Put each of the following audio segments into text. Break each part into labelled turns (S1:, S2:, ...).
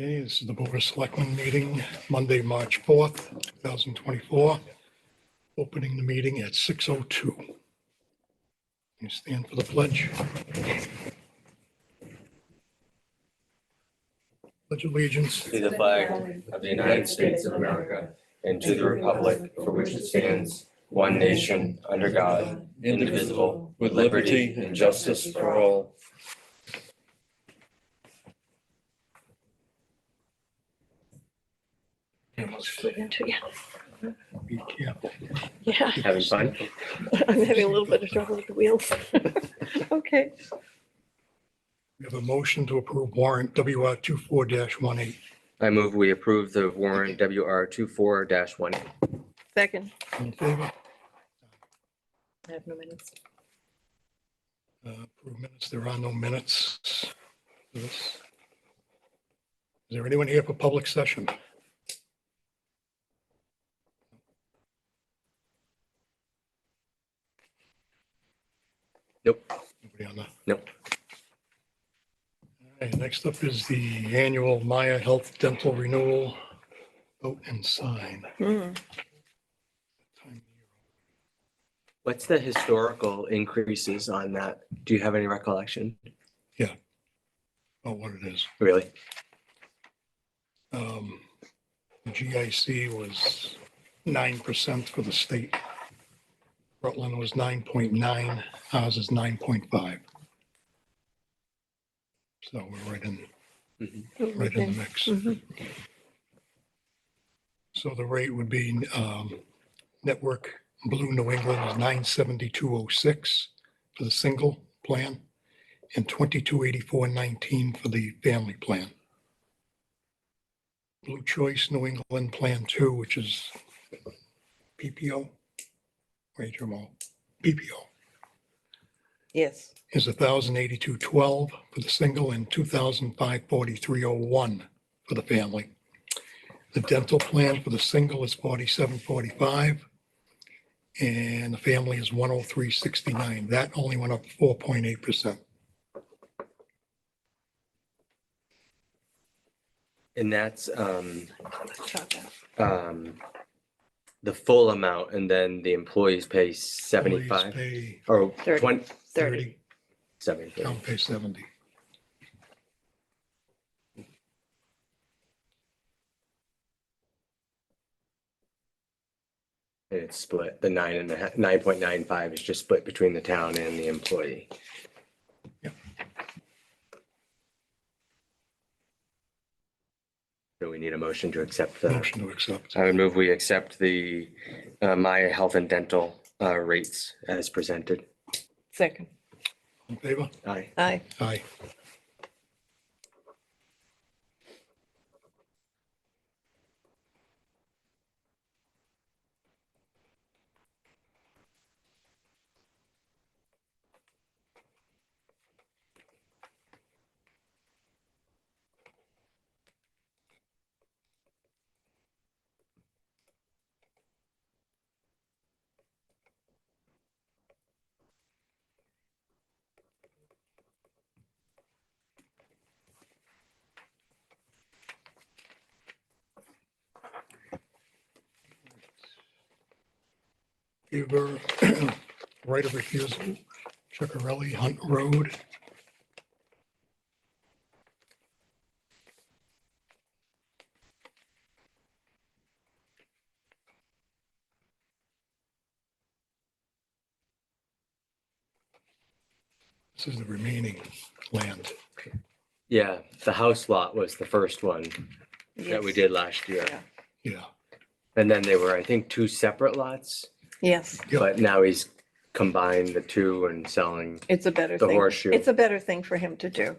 S1: Okay, this is the Board of Selectmen meeting, Monday, March 4th, 2024. Opening the meeting at 6:02. You stand for the pledge. Pledge allegiance.
S2: To the flag of the United States of America and to the republic for which it stands, one nation, under God, indivisible, with liberty and justice for all.
S1: Be careful.
S3: Yeah,
S2: Having fun?
S3: I'm having a little bit of trouble with the wheels. Okay,
S1: We have a motion to approve warrant WR 24-18.
S2: I move we approve the warrant WR 24-1.
S3: second.
S1: All in favor?
S3: I have no minutes.
S1: Uh, Approve minutes. There are no minutes. for this. Is there anyone here for public session?
S2: Nope.
S1: Nobody on that?
S2: Nope.
S1: All right, next up is the annual Maya Health Dental Renewal. Vote and sign.
S3: Hmm,
S2: What's the historical increases on that? Do you have any recollection?
S1: Oh, what it is.
S2: Really?
S1: Um, the GIC was nine percent for the state. Rutland was nine point nine, ours is nine point five. So we're right in, right in
S3: okay.
S1: the mix.
S3: Mhm.
S1: So the rate would be, um, Network Blue New England is nine seventy-two oh six for the single plan and twenty-two eighty-four nineteen for the family plan. Blue Choice New England Plan Two, which is PPO, wait, HMO, PPO,
S3: Yes,
S1: is a thousand eighty-two twelve for the single and two thousand five forty-three oh one for the family. The dental plan for the single is forty-seven forty-five. And the family is one oh three sixty-nine. That only went up four point eight percent.
S2: And that's um,
S3: Chop out.
S2: um, the full amount and then the employees pay 75
S1: Pay
S2: or
S3: Thirty.
S2: 20,
S3: thirty.
S1: thirty,
S2: seventy.
S1: town pay seventy.
S2: And it's split, the nine and a half, nine point nine five is just split between the town and the employee.
S1: Yep.
S2: So we need a motion to accept the,
S1: Motion to accept.
S2: I would move we accept the uh, Maya Health and Dental uh, rates as presented.
S3: Second.
S1: In favor?
S2: Aye.
S3: Aye.
S1: Aye. Huber, right of refusal, Chicarelli, Hunt Road. This is the remaining land.
S2: Yeah, the house lot was the first one that we
S3: Yes.
S2: did last year.
S3: Yeah.
S1: Yeah,
S2: And then they were, I think, two separate lots,
S3: Yes,
S1: Yep.
S2: but now he's combined the two and selling,
S3: it's a better
S2: The
S3: thing.
S2: horseshoe.
S3: It's a better thing for him to do.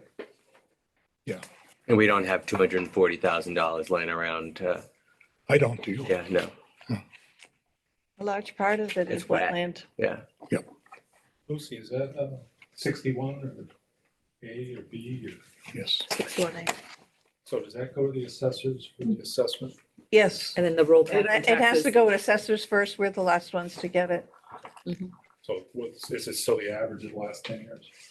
S2: and we don't have two hundred and forty thousand dollars laying around to
S1: I don't do.
S2: Yeah, no,
S3: A large part of it is
S2: It's wet.
S3: wetland.
S2: yeah.
S4: Lucy, is that uh, sixty-one or A or B or,
S1: Yes,
S3: Six one eight.
S4: so does that go to the assessors for the assessment?
S3: Yes,
S5: And then the rollback.
S3: it
S5: in
S3: it has to
S5: taxes.
S3: go to assessors first. We're the last ones to get it.
S4: So what's, is it still the average of the last ten years?